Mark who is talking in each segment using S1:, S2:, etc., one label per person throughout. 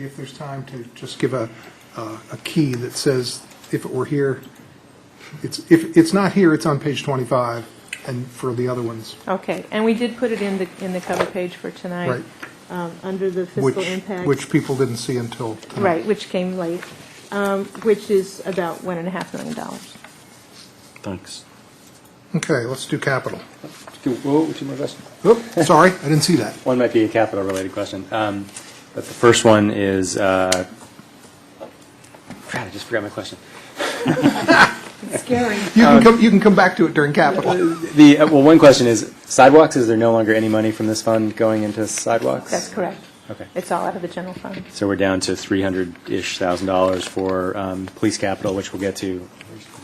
S1: If there's time to just give a, a a key that says, if it were here, it's, if it's not here, it's on page 25, and for the other ones,
S2: Okay, and we did put it in the, in the cover page for tonight.
S1: Right.
S2: um, Under the
S1: which,
S2: fiscal impact.
S1: which people didn't see until tonight.
S2: Right, which came late, um, which is about one and a half million dollars.
S3: Thanks.
S1: Okay, let's do capital.
S3: Two, whoa, two more questions.
S1: Oop, sorry, I didn't see that.
S3: One might be a capital-related question. Um, But the first one is, uh, crap, I just forgot my question.
S2: Scary.
S1: You can come, you can come back to it during capital.
S3: The, uh, well, one question is sidewalks, is there no longer any money from this fund going into sidewalks?
S2: That's correct.
S3: Okay.
S2: It's all out of the general fund.
S3: So we're down to 300-ish thousand dollars for um, police capital, which we'll get to.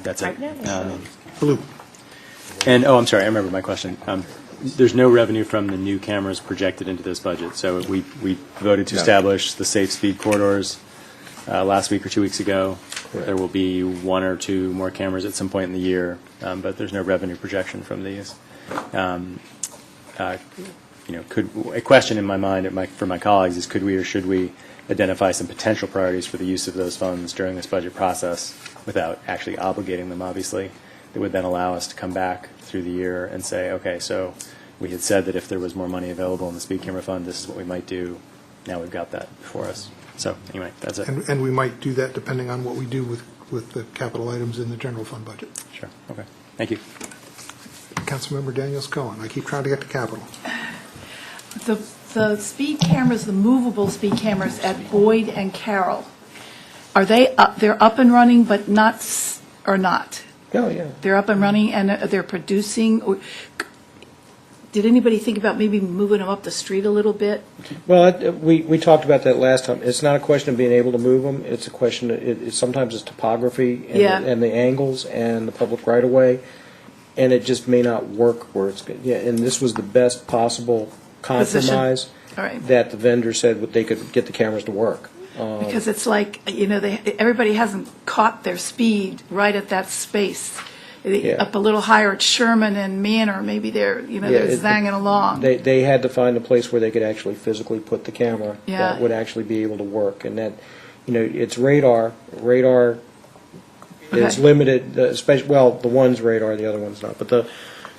S3: That's it.
S2: Right now.
S3: Um,
S1: Blue.
S3: And, oh, I'm sorry, I remember my question. Um, There's no revenue from the new cameras projected into this budget, so we we voted to establish the safe speed corridors uh, last week or two weeks ago. There will be one or two more cameras at some point in the year, um, but there's no revenue projection from these. Um, uh, You know, could, a question in my mind, at my- for my colleagues, is could we or should we identify some potential priorities for the use of those funds during this budget process without actually obligating them, obviously? that would then allow us to come back through the year and say, okay, so we had said that if there was more money available in the speed camera fund, this is what we might do. Now we've got that before us. So anyway, that's it.
S1: And, and we might do that depending on what we do with, with the capital items in the general fund budget.
S3: Sure. Okay. Thank you.
S1: Councilmember Daniels Cohen, I keep trying to get to capital.
S4: The, the speed cameras, the movable speed cameras at Boyd and Carroll, are they, up- they're up and running, but not, s- or not?
S5: Oh, yeah.
S4: They're up and running and uh, they're producing, or, did anybody think about maybe moving them up the street a little bit?
S5: Well, it- we, we talked about that last time. It's not a question of being able to move them. It's a question, it, it's- sometimes it's topography and,
S4: Yeah.
S5: and the angles and the public right of way. And it just may not work where it's, good. yeah, and this was the best possible
S4: Position.
S5: compromise.
S4: All right.
S5: That the vendor said what they could get the cameras to work.
S4: Because it's like, you know, they, everybody hasn't caught their speed right at that space. They-
S5: Yeah.
S4: Up a little higher at Sherman and Manor, maybe they're, you know,
S5: Yeah,
S4: they're
S5: it-
S4: zanging along.
S5: They, they had to find a place where they could actually physically put the camera
S4: Yeah.
S5: that would actually be able to work. And that, you know, it's radar. Radar is
S4: Okay.
S5: limited, especially, well, the one's radar, the other one's not. But the,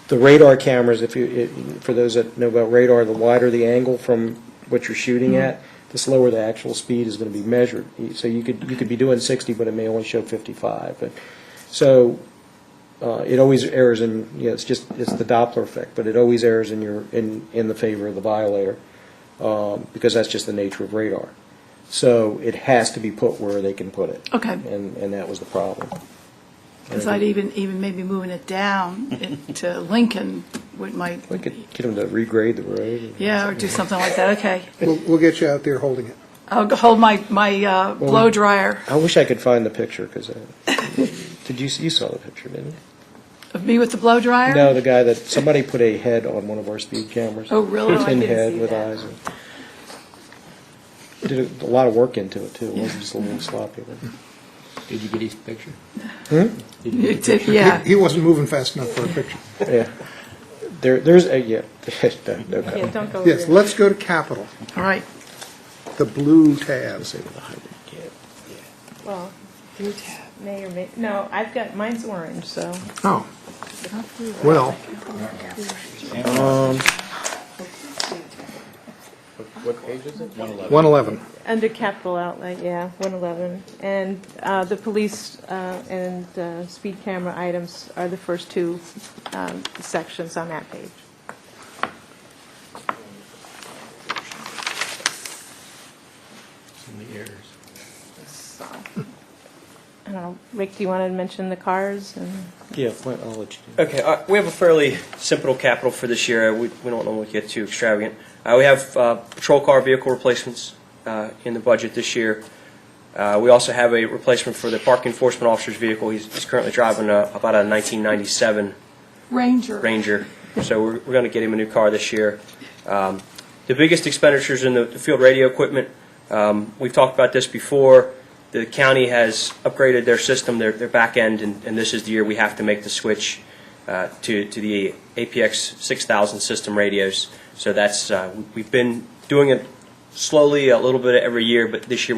S5: the radar cameras, if you, it- for those that know about radar, the wider the angle from what you're shooting
S4: Mm-hmm.
S5: at, the slower the actual speed is going to be measured. So you could, you could be doing 60, but it may only show 55. But, so uh, it always errs in, you know, it's just, it's the Doppler effect, but it always errs in your, in, in the favor of the violator, um, because that's just the nature of radar. So it has to be put where they can put it.
S4: Okay.
S5: And, and that was the problem.
S4: Because I'd even, even maybe moving it down it- to Lincoln would might,
S5: We could get them to regrade the road.
S4: yeah, or do something like that, okay.
S1: We'll, we'll get you out there holding it.
S4: I'll go hold my, my uh, blow dryer
S5: I wish I could find the picture, because, did you, you saw the picture, didn't
S4: of me with the blow
S5: you?
S4: dryer?
S5: No, the guy that, somebody put a head on one of our speed cameras.
S4: Oh, really? Oh, I
S5: Tin
S4: didn't
S5: head
S4: see
S5: with
S4: that.
S5: eyes. and- Did a a lot of work into it, too. It wasn't just a little sloppy. but-
S6: Did you get his picture?
S4: It did, Yeah,
S1: He wasn't moving fast enough for a picture.
S5: Yeah. There, there's, a yeah, no, no
S2: Yeah,
S5: comment.
S2: don't go over
S1: Yes,
S2: there.
S1: let's go to capital,
S4: all right.
S1: the blue tabs.
S2: Well, blue tab May or may, no, I've got, mine's orange, so.
S1: Oh, well,
S6: What page is it? One eleven.
S1: 111.
S2: Under capital outlay, yeah, 111. And uh, the police uh, and uh, speed camera items are the first two um, sections on that page.
S6: Some of the errors.
S2: So, I don't know, Rick, do you want to mention the cars? and
S5: Yeah, well, I'll let you do
S7: Okay, uh, we have a fairly simple capital for this year. Uh, We we don't normally get too extravagant. Uh, We have uh, patrol car vehicle replacements uh, in the budget this year. Uh, We also have a replacement for the park enforcement officer's vehicle. He's he's currently driving a- about a 1997
S4: Ranger,
S7: Ranger, so we're, we're going to get him a new car this year. Um, The biggest expenditures in the the field radio equipment, um, we've talked about this before, the county has upgraded their system, their, their back end, and, and this is the year we have to make the switch uh, to, to the APX 6000 system radios. So that's, uh, we've been doing it slowly, a little bit every year, but this year we